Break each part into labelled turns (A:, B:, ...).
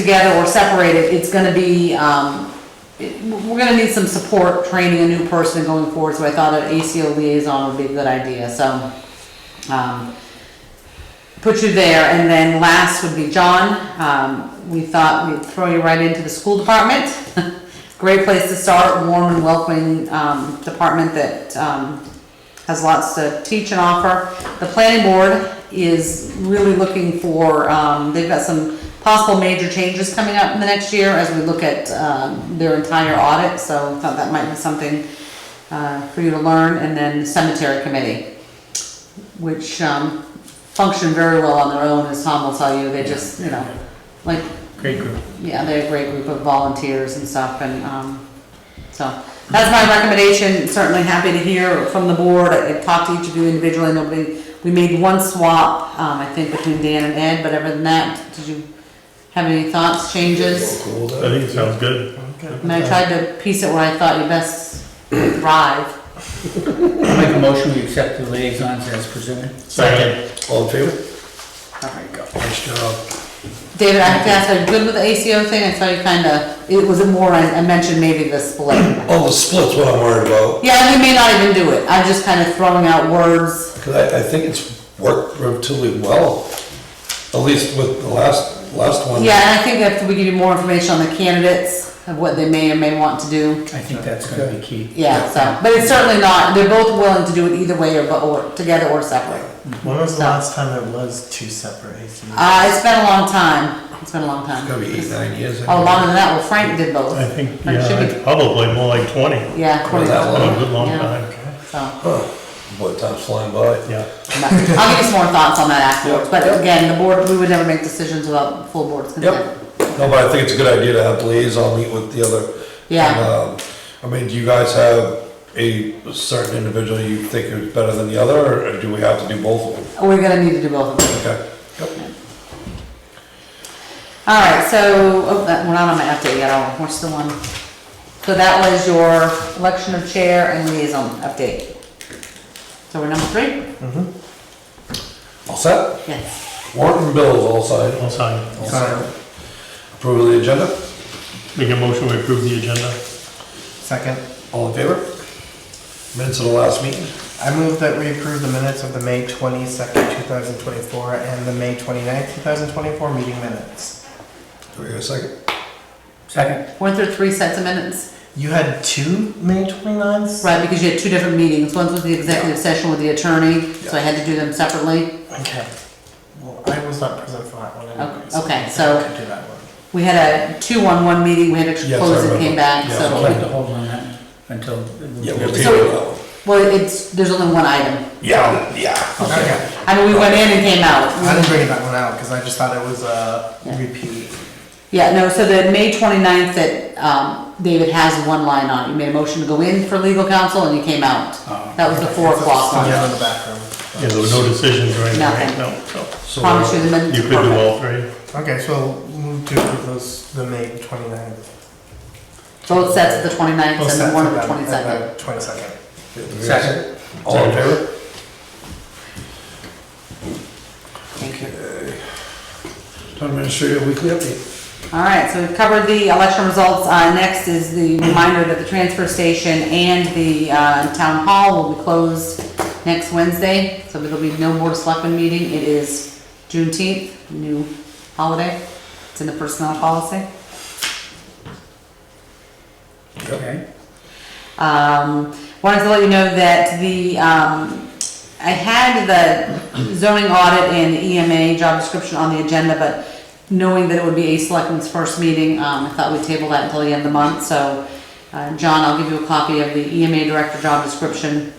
A: together or separated, it's gonna be, um, it- we're gonna need some support, training a new person going forward, so I thought an ACO liaison would be a good idea, so, um, put you there, and then last would be John, um, we thought we'd throw you right into the school department. Great place to start, warm and welcoming, um, department that, um, has lots to teach and offer. The planning board is really looking for, um, they've got some possible major changes coming up in the next year as we look at, um, their entire audit, so thought that might be something, uh, for you to learn, and then cemetery committee, which, um, function very well on their own, as Tom will tell you, they just, you know, like,
B: Great group.
A: yeah, they're a great group of volunteers and stuff, and, um, so, that's my recommendation, certainly happy to hear from the board, I talked to each of you individually, nobody, we made one swap, um, I think between Dan and Ed, but other than that, did you have any thoughts, changes?
B: I think it sounds good.
A: And I tried to piece it where I thought you best thrive.
C: I Make a motion, we accept the liaisons as presented.
B: Second.
D: All in favor?
C: There you go.
D: Nice job.
A: David, I have to ask, are you good with the ACO thing, I saw you kinda, it was more, I I mentioned maybe the split.
D: Oh, the split's what I'm worried about,
A: Yeah, we may not even do it, I'm just kinda throwing out words.
D: because I, I think it's worked relatively well, at least with the last, last one.
A: Yeah, and I think if we give you more information on the candidates, of what they may or may want to do,
C: I think that's gonna be key.
A: yeah, so, but it's certainly not, they're both willing to do it either way or, but- or, together or separate.
E: When was the
A: No.
E: last time it was two separate ACs?
A: Uh, it's been a long time, it's been a long time.
D: It's gonna be eight, nine years.
A: Oh, longer than that, well Frank did both,
B: I think,
A: That
B: yeah, Oh,
A: should be-
B: it's probably more like twenty.
A: yeah.
D: Well, that
B: Been
D: long.
B: A good long
A: Yeah.
B: time.
A: So,
D: Boy, time's flying by.
B: Yeah.
A: but I'll give you some more thoughts on that afterwards,
D: Yep.
A: but again, the board, we would never make decisions without the full board's consent.
D: No, but I think it's a good idea to have the liaison meet with the other.
A: Yeah.
D: And, um, I mean, do you guys have a certain individual you think is better than the other, or do we have to do both of them?
A: We're gonna need to do both of them.
D: Okay.
A: All right, so, oh, that- we're not on my update yet, are we? we're still on. So that was your election of chair and liaison update. So we're number three?
D: All set?
A: Yes.
D: Warrant and bills all signed.
B: I'll sign.
E: Sorry,
D: Approval of the agenda?
B: Make a motion to approve the agenda.
E: second.
D: All in favor? Minutes of the last meeting?
E: I move that we approve the minutes of the May twenty-second, two thousand twenty-four, and the May twenty-ninth, two thousand twenty-four meeting minutes.
D: Do we have a second?
C: Second?
A: Weren't there three sets of minutes?
E: You had two May twenty-ninths?
A: Right, because you had two different meetings, one was the executive session with the attorney, so I had to do them separately.
E: Okay. Well, I was not present for that one anyways.
A: okay, so-
E: I could do that one.
A: We had a two-on-one meeting, we had to
D: Yes, I
A: close and came
D: remember.
A: back,
D: Yeah.
C: I'd
A: so.
C: like to hold on that until.
D: Yeah, we'll
A: take
D: take
A: it
D: it
A: out. Well, it's, there's only one item.
D: Yeah, yeah.
E: Okay.
A: I mean, we went in and came out.
E: I didn't bring that one out because I just thought it was a
A: Yeah.
E: repeat.
A: Yeah, no, so the May 29th that, um, David has one line on, it. you made a motion to go in for legal counsel and you came out.
C: Uh,
A: That was the four
E: It's a-
A: o'clock one.
E: Yeah, in the background.
B: Yeah, there were no decisions or anything, right?
A: Nothing.
B: No, so.
D: So, uh,
A: Promise you the minutes.
B: You could do all three.
E: Okay, so move to approve those, the May twenty-ninth.
A: Both sets of the 29th and the one of the 22nd.
E: Twenty-second.
D: do we have a
C: Second.
D: All in favor?
A: Thank you.
D: Town administrator weekly update.
A: All right, so we've covered the election results. Uh, next is the reminder that the transfer station and the, uh, town hall will be closed next Wednesday. So there'll be no board of selectmen meeting. It is Juneteenth, new holiday. It's in the personnel policy.
C: Okay.
A: Um, wanted to let you know that the, um, I had the zoning audit and EMA job description on the agenda, but knowing that it would be a selectman's first meeting, um, I thought we'd table that until the end of the month, so, uh, John, I'll give you a copy of the EMA director job description.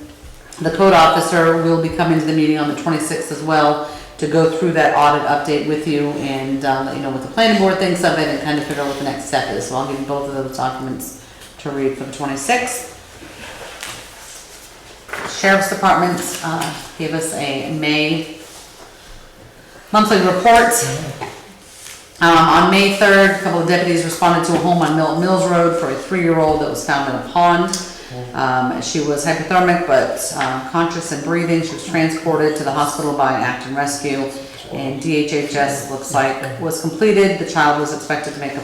A: The code officer will be coming to the meeting on the twenty-sixth as well to go through that audit update with you and, uh, let you know what the planning board thinks of it and kind of figure out what the next step is, so I'll give you both of those documents to read for the twenty-sixth. Sheriff's Department uh, gave us a May monthly report. Um, On May 3rd, a couple of deputies responded to a home on Milton Mills Road for a three-year-old that was found in a pond. Um, She was hypothermic but um, conscious and breathing. She was transported to the hospital by an Acton Rescue. And DHHS looks like was completed, the child was expected to make a